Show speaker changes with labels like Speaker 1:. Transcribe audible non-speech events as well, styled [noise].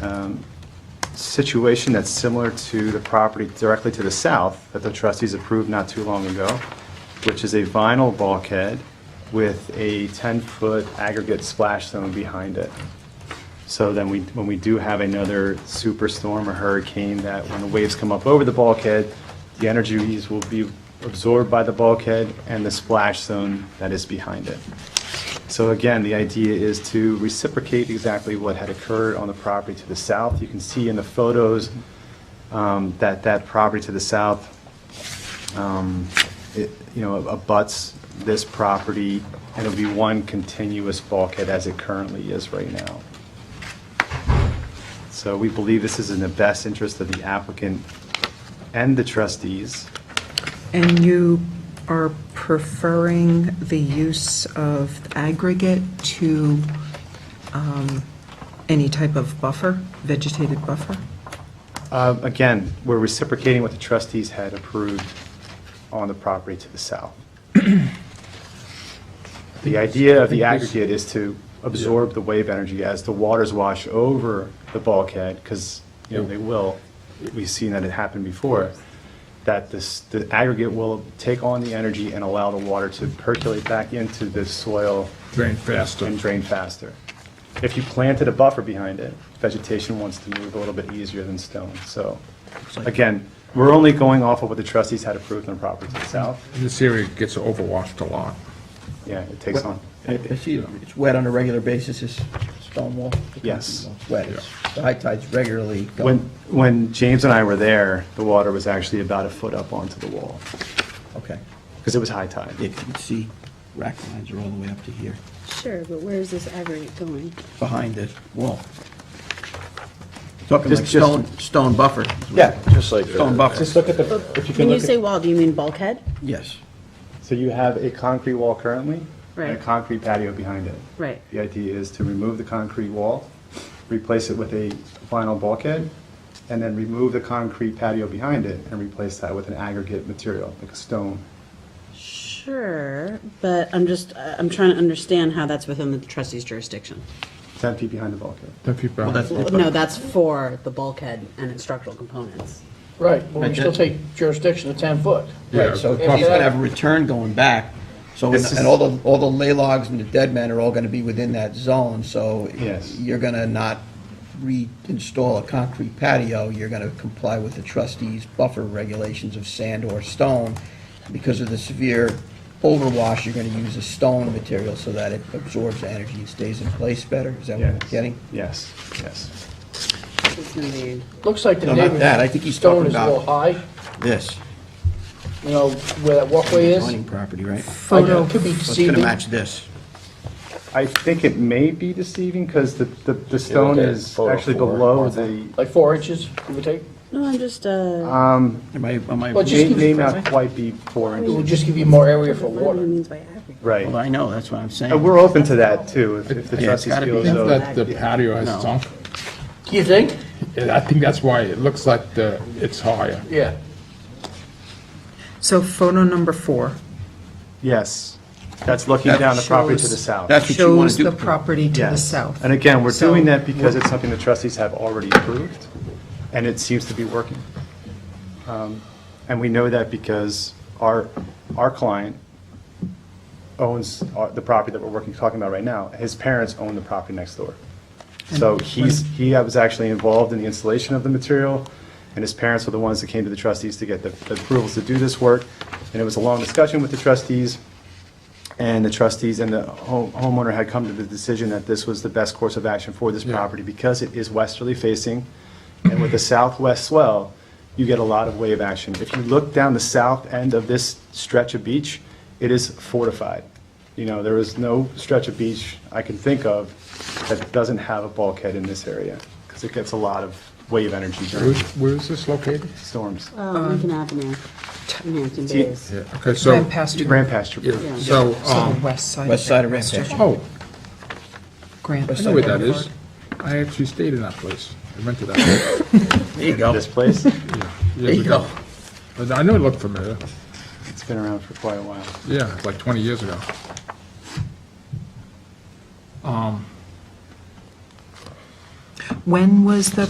Speaker 1: um, situation that's similar to the property directly to the south that the trustees approved not too long ago, which is a vinyl bulkhead with a 10-foot aggregate splash zone behind it. So then we, when we do have another superstorm or hurricane, that when the waves come up over the bulkhead, the energies will be absorbed by the bulkhead and the splash zone that is behind it. So again, the idea is to reciprocate exactly what had occurred on the property to the south. You can see in the photos um, that that property to the south, um, it- you know, abuts this property, and it'll be one continuous bulkhead as it currently is right now. So we believe this is in the best interest of the applicant and the trustees.
Speaker 2: And you are preferring the use of aggregate to um, any type of buffer, vegetated buffer?
Speaker 1: Uh, Again, we're reciprocating what the trustees had approved on the property to the south. [clears throat] The idea of the aggregate is to absorb the wave energy as the waters wash over the bulkhead, because, you know, they will. We've seen that it happened before, that this, the aggregate will take on the energy and allow the water to percolate back into the soil
Speaker 3: Drain faster.
Speaker 1: and drain faster. If you planted a buffer behind it, vegetation wants to move a little bit easier than stone. So, again, we're only going off of what the trustees had approved on the property to the south.
Speaker 3: This area gets overwashed a lot.
Speaker 1: Yeah, it takes on.
Speaker 4: I see it's wet on a regular basis, this stone wall?
Speaker 1: Yes.
Speaker 4: It's Wet, it's- the high tide's regularly
Speaker 1: When,
Speaker 4: going,
Speaker 1: when James and I were there, the water was actually about a foot up onto the wall,
Speaker 4: okay.
Speaker 1: because it was high tide.
Speaker 4: Yeah, 'cause you can see rack lines are all the way up to here,
Speaker 5: Sure, but where is this aggregate going?
Speaker 4: behind the wall. Talking
Speaker 1: Just-
Speaker 4: like
Speaker 1: just-
Speaker 4: stone, stone buffer.
Speaker 1: Yeah,
Speaker 4: just like. Stone buffer,
Speaker 1: Just look at the, if you can
Speaker 5: When you
Speaker 1: look
Speaker 5: say
Speaker 1: at.
Speaker 5: wall, do you mean bulkhead?
Speaker 4: yes.
Speaker 1: So you have a concrete wall currently? And a
Speaker 5: Right.
Speaker 1: concrete patio behind it.
Speaker 5: Right.
Speaker 1: The idea is to remove the concrete wall, replace it with a vinyl bulkhead, and then remove the concrete patio behind it and replace that with an aggregate material, like a stone.
Speaker 5: Sure, but I'm just, I- I'm trying to understand how that's within the trustee's jurisdiction.
Speaker 1: 10 feet behind the bulkhead.
Speaker 3: Ten feet behind.
Speaker 4: that's-
Speaker 5: No, that's for the bulkhead and its structural components.
Speaker 6: Right, but we still take jurisdiction of 10 foot.
Speaker 3: Yeah,
Speaker 4: Right, so
Speaker 3: the
Speaker 4: if
Speaker 3: buffer.
Speaker 4: you're gonna have a return going back, so,
Speaker 1: This is-
Speaker 4: and all the, all the lay logs and the dead men are all gonna be within that zone, so.
Speaker 1: Yes.
Speaker 4: You're gonna not reinstall a concrete patio, you're gonna comply with the trustees' buffer regulations of sand or stone. Because of the severe overwash, you're gonna use a stone material so that it absorbs the energy and stays in place better, is that what I'm
Speaker 1: Yes.
Speaker 4: getting?
Speaker 1: Yes, yes.
Speaker 5: It's gonna be,
Speaker 6: Looks like the
Speaker 4: No, not
Speaker 6: neighbor's
Speaker 4: that. I think he's talking
Speaker 6: stone is a little high,
Speaker 4: This,
Speaker 6: you know, where that walkway is.
Speaker 4: zoning property, right?
Speaker 6: I know, It could be
Speaker 4: So It's gonna
Speaker 6: deceiving.
Speaker 4: match this.
Speaker 1: I think it may be deceiving because the, the, the stone
Speaker 7: at
Speaker 1: is
Speaker 7: photo
Speaker 1: actually
Speaker 7: four.
Speaker 1: below the,
Speaker 6: Like four inches, give or take.
Speaker 5: no, I'm just, uh,
Speaker 6: Ah,
Speaker 4: Am I, am I?
Speaker 6: Well, just
Speaker 1: may
Speaker 6: give
Speaker 1: may
Speaker 6: me-
Speaker 1: not quite be four
Speaker 6: It would
Speaker 1: inches.
Speaker 6: just give you more area for
Speaker 5: what do you
Speaker 6: water.
Speaker 5: mean by aggregate?
Speaker 1: Right.
Speaker 4: Well, I know, that's what I'm saying.
Speaker 1: And we're open to that too, if- if the
Speaker 3: Yeah, it's
Speaker 1: trustees
Speaker 4: gotta be.
Speaker 1: feel as
Speaker 3: I think
Speaker 1: though.
Speaker 3: that the patio has
Speaker 4: No.
Speaker 3: sunk.
Speaker 6: Do you think?
Speaker 3: Yeah, I think that's why it looks like the, it's higher.
Speaker 6: Yeah.
Speaker 2: So photo number four
Speaker 1: Yes, that's looking
Speaker 4: That
Speaker 1: down the property to
Speaker 2: shows-
Speaker 1: the south.
Speaker 4: That's what you wanna
Speaker 2: shows
Speaker 4: do.
Speaker 2: the property to the
Speaker 1: Yes.
Speaker 2: south.
Speaker 1: And again, we're
Speaker 2: So-
Speaker 1: doing that because it's something the trustees have already approved, and it seems to be working. Um, And we know that because our, our client owns our- the property that we're working, talking about right now. His parents own the property next door. So he's, he was actually involved in the installation of the material, and his parents were the ones that came to the trustees to get the the approvals to do this work. And it was a long discussion with the trustees, and the trustees and the home- homeowner had come to the decision that this was the best course of action for this property because it is westerly facing, and with the southwest swell, you get a lot of wave action. If you look down the south end of this stretch of beach, it is fortified. You know, there is no stretch of beach I can think of that doesn't have a bulkhead in this area, because it gets a lot of wave energy during
Speaker 3: Where's, where is this located?
Speaker 1: storms.
Speaker 5: Oh, Lincoln Avenue, in Hampton
Speaker 1: See-
Speaker 5: Bays.
Speaker 3: Yeah, okay, so,
Speaker 2: Ran past you,
Speaker 1: Ran past your,
Speaker 3: yeah, so,
Speaker 2: so
Speaker 3: um,
Speaker 2: west side.
Speaker 4: West side of
Speaker 2: Lancaster.
Speaker 4: Rancaster.
Speaker 3: oh,
Speaker 2: Grant.
Speaker 3: I know where that is. I actually stayed in that place. I rented that. place
Speaker 4: [laughs] There you go.
Speaker 1: this place,
Speaker 4: There
Speaker 3: years
Speaker 4: you
Speaker 3: ago.
Speaker 4: go.
Speaker 3: But I know it looked familiar.
Speaker 1: it's been around for quite a while.
Speaker 3: Yeah, it's like 20 years ago. Um,
Speaker 2: When was the